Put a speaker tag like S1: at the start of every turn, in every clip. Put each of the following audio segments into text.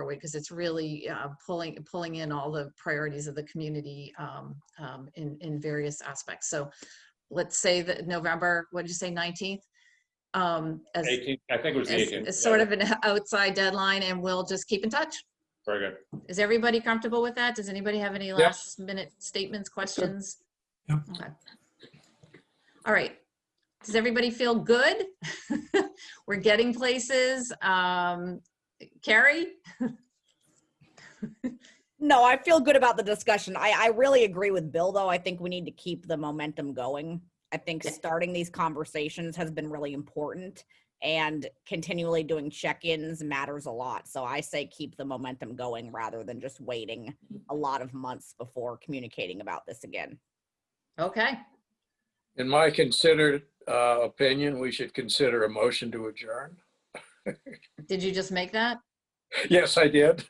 S1: forward because it's really uh, pulling, pulling in all the priorities of the community um, um, in, in various aspects. So let's say that November, what did you say, 19th? Um, As,
S2: 18, I think it was the
S1: as
S2: 18th.
S1: as sort
S2: Yeah,
S1: of an outside deadline and we'll just keep in touch.
S2: Very good.
S1: Is everybody comfortable with that? Does anybody have any last minute statements, questions?
S3: Yep.
S1: Okay. All right. Does everybody feel good? We're getting places. Um, Carrie?
S4: No, I feel good about the discussion. I, I really agree with Bill, though. I think we need to keep the momentum going. I think
S1: Yeah.
S4: starting these conversations has been really important and continually doing check-ins matters a lot. So I say keep the momentum going rather than just waiting a lot of months before communicating about this again.
S1: Okay.
S5: In my considered uh, opinion, we should consider a motion to adjourn.
S1: Did you just make that?
S5: Yes, I did.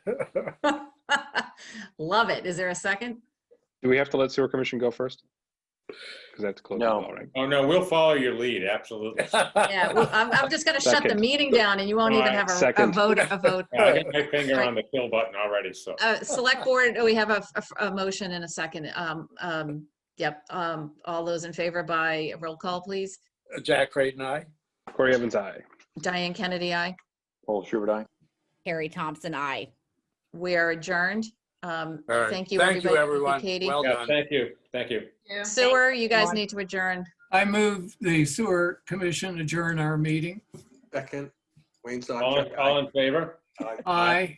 S1: Love it. Is there a second?
S6: Do we have to let sewer commission go first? Because that's close.
S7: No.
S6: All right.
S2: Oh, no, we'll follow your lead, absolutely.
S1: Yeah, well, I'm, I'm just going to shut the
S6: Second.
S1: meeting down and you won't even
S2: Alright,
S1: have a- a
S6: second.
S1: vote, a vote.
S2: I got my finger on the kill button already, so.
S1: Uh, Select Board, we have a, a- a motion and a second. Um, um, Yep, um, all those in favor by roll call, please.
S5: Jack Creighton, I.
S6: Corey Evans, aye.
S1: Diane Kennedy, aye.
S7: Paul Schubert, aye.
S4: Carrie Thompson, I.
S1: We are adjourned. Um,
S5: All right.
S1: Thank you,
S5: Thank
S1: everybody.
S5: you, everyone.
S1: Katie.
S5: Well
S2: Yeah,
S5: done.
S2: thank you, thank you.
S1: Sewer, you guys
S4: Thank
S1: need to adjourn.
S3: I move the sewer commission adjourn our meeting.
S8: Second, Wayne
S2: All,
S8: Sawchuk.
S2: in- all in favor?
S3: Aye.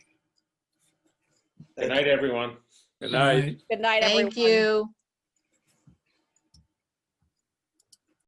S2: Good night, everyone.
S5: Good night.
S4: Good night, everyone.
S1: Thank you.